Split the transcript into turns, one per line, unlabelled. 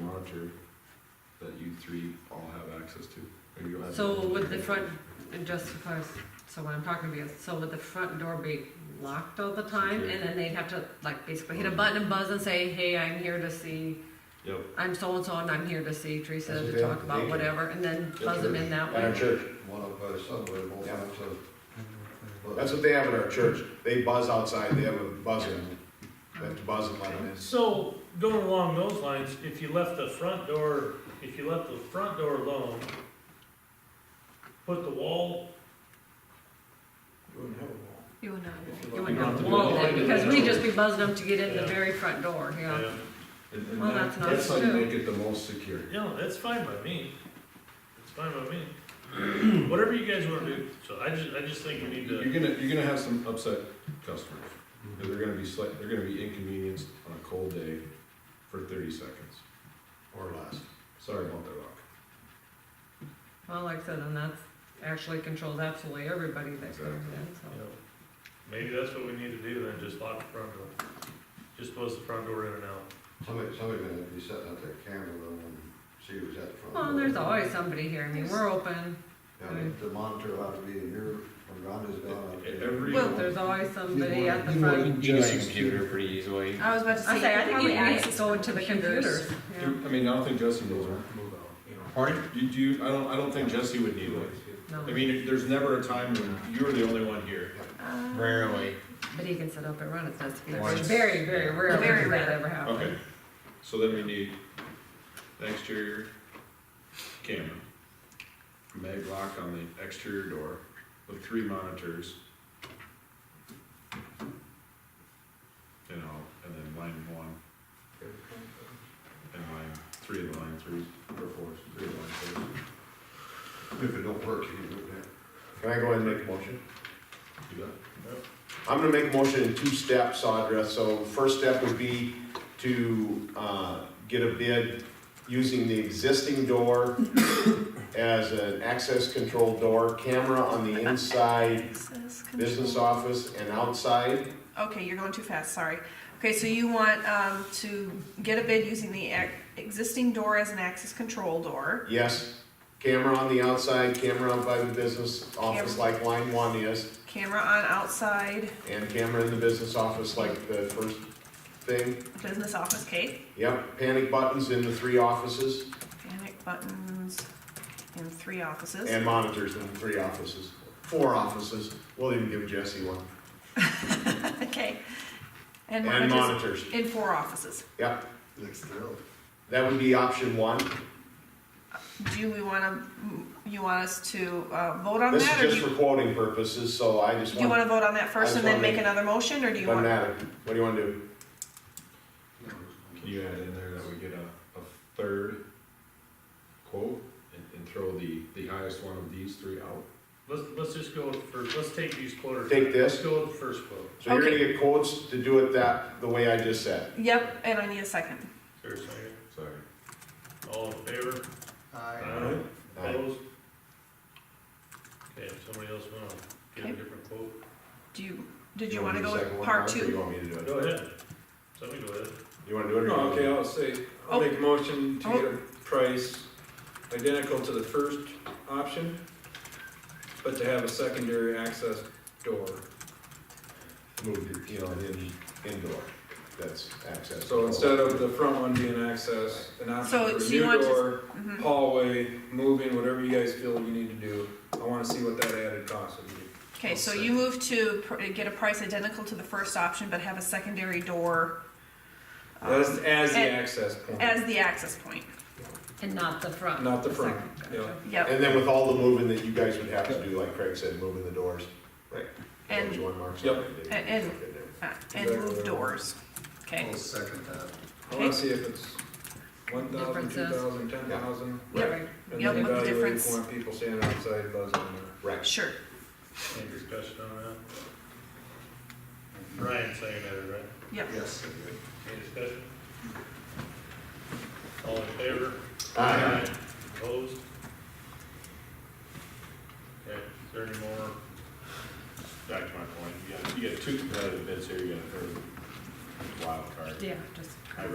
monitor that you three all have access to? Or you have-
So would the front, and just because, so what I'm talking about, is, so would the front door be locked all the time? And then they'd have to like basically hit a button and buzz and say, hey, I'm here to see,
Yep,
I'm so-and-so and I'm here to see Teresa
That's
to
okay.
talk about whatever, and then
That's
buzz them in
good.
that
At our
way.
church,
One up by Sunway, both
Yeah.
up to.
that's what they have at our church, they buzz outside, they have a buzzer, they have to buzz and let them in.
So, going along those lines, if you left the front door, if you left the front door alone, put the wall,
You would not.
You
You
wouldn't
have
would not,
to do
Well,
that.
because we'd just be buzzing them to get in the
Yeah.
very front door, yeah.
yeah,
and, and
Well,
that,
Oh, that's nice
that's how you
too.
make it the most secure.
you know, that's fine by me. It's fine by me. Whatever you guys wanna do, so I just, I just think we need
You're
to,
gonna, you're gonna have some upset customers, and they're gonna be slight, they're gonna be inconvenienced on a cold day for thirty seconds.
Or less.
Sorry about their luck.
Well, like I said, and that's actually controls absolutely everybody that comes in, so.
you know, maybe that's what we need to do, then just lock the front door. Just close the front door in and out.
Somebody, somebody gonna be setting up their camera though and see who's at the front.
Well, and
door.
there's always somebody here, I mean, we're open,
Yeah, but the monitor will have to be in here, when Rhonda's gone. I'll be-
Every-
well, there's always somebody at the front.
You can go to your computer pretty easily.
I was about to say.
I say, I think you
probably
need to
access
go into the computers.
Do- I mean, I don't think Jesse needs one.
Pardon?
You do, you- I don't, I don't think Jesse would need one.
No,
I mean, there's never a time when you're the only one here.
Uh,
Rarely.
but he can sit up and run, it's nice to be,
Once.
very, very rare,
Very
very rare
rare.
that ever happens.
Okay, so then we need an exterior camera, mag lock on the exterior door with three monitors. You know, and then line one. And line, three of the line threes, or fours, three of the line
If it don't work, you can do that.
Can I go ahead and make a motion?
threes. Do that?
I'm gonna make a motion in two steps, Audra, so first step would be to, uh, get a bid using the existing door as an access control door, camera on the inside,
access Uh, control.
business office and outside,
Okay, you're going too fast, sorry. Okay, so you want, um, to get a bid using the ac- existing door as an access control door.
yes, camera on the outside, camera out by the business office like line one is,
Camera on outside,
and camera in the business office like the first thing,
business office Kate.
Yep, panic buttons in the three offices
panic buttons in three offices.
and monitors in the three offices. Four offices, we'll even give Jesse one.
Okay. And
And
monitors
monitors,
in four offices.
yep,
Looks thrilled.
that would be option one.
Do we wanna, you want us to, uh, vote on
This is
that or do
just
you,
for quoting purposes, so I just
do you
want,
wanna vote on that
I
first
just
and then
wanna
make
make-
another motion or do you
doesn't
want?
matter, what do you wanna do?
Can you add in there that we get a, a third quote and, and throw the, the highest one of these three out?
Let's, let's just go for, let's take these quarters.
Take this?
Let's go with the first quote.
So you're gonna
Okay.
get quotes to do it that, the way I just said.
Yep, and I need a second.
Is there a second?
Sorry.
All in favor?
Aye.
Aye.
Opposed? Okay, if somebody else wanna get a
Okay.
different quote,
Do you, did you
wanna
wanna go
do the second
with
one
part
first, Or you
two?
want me to do it?
go ahead, somebody go ahead.
You wanna do it? or
No,
you want me
okay,
to?
I'll say, I'll
Oh.
make a motion to get a price identical to the first option, but to have a secondary access door.
Move the, you know, in, indoor, that's access.
So instead of the front one being access, an
So-
option for a
so you
new
want to-
door,
Mhm.
hallway, moving, whatever you guys feel you need to do. I wanna see what that added cost would be.
Okay, so you move to pr- get a price identical to the first option, but have a secondary door um,
That's as the
and-
access point,
as the access point.
And not the front.
not the front,
second,
yeah.
gotcha.
Yep,
And then with all the moving that you guys would have to do, like Craig said, moving the doors. That was
and,
one mark.
Yep.
And- and- uh, and move doors. Okay,
I'll second that.
I wanna see if it's one thousand, two
Differences.
thousand, ten thousand.
Yep.
Right.
And
Yep,
then
what the
evaluate if
difference-
you want people standing outside buzzing or.
Right.
sure.
Any discussion on that? Ryan seconded it, right?
Yep,
Yes.
Any discussion? All in favor?
Aye.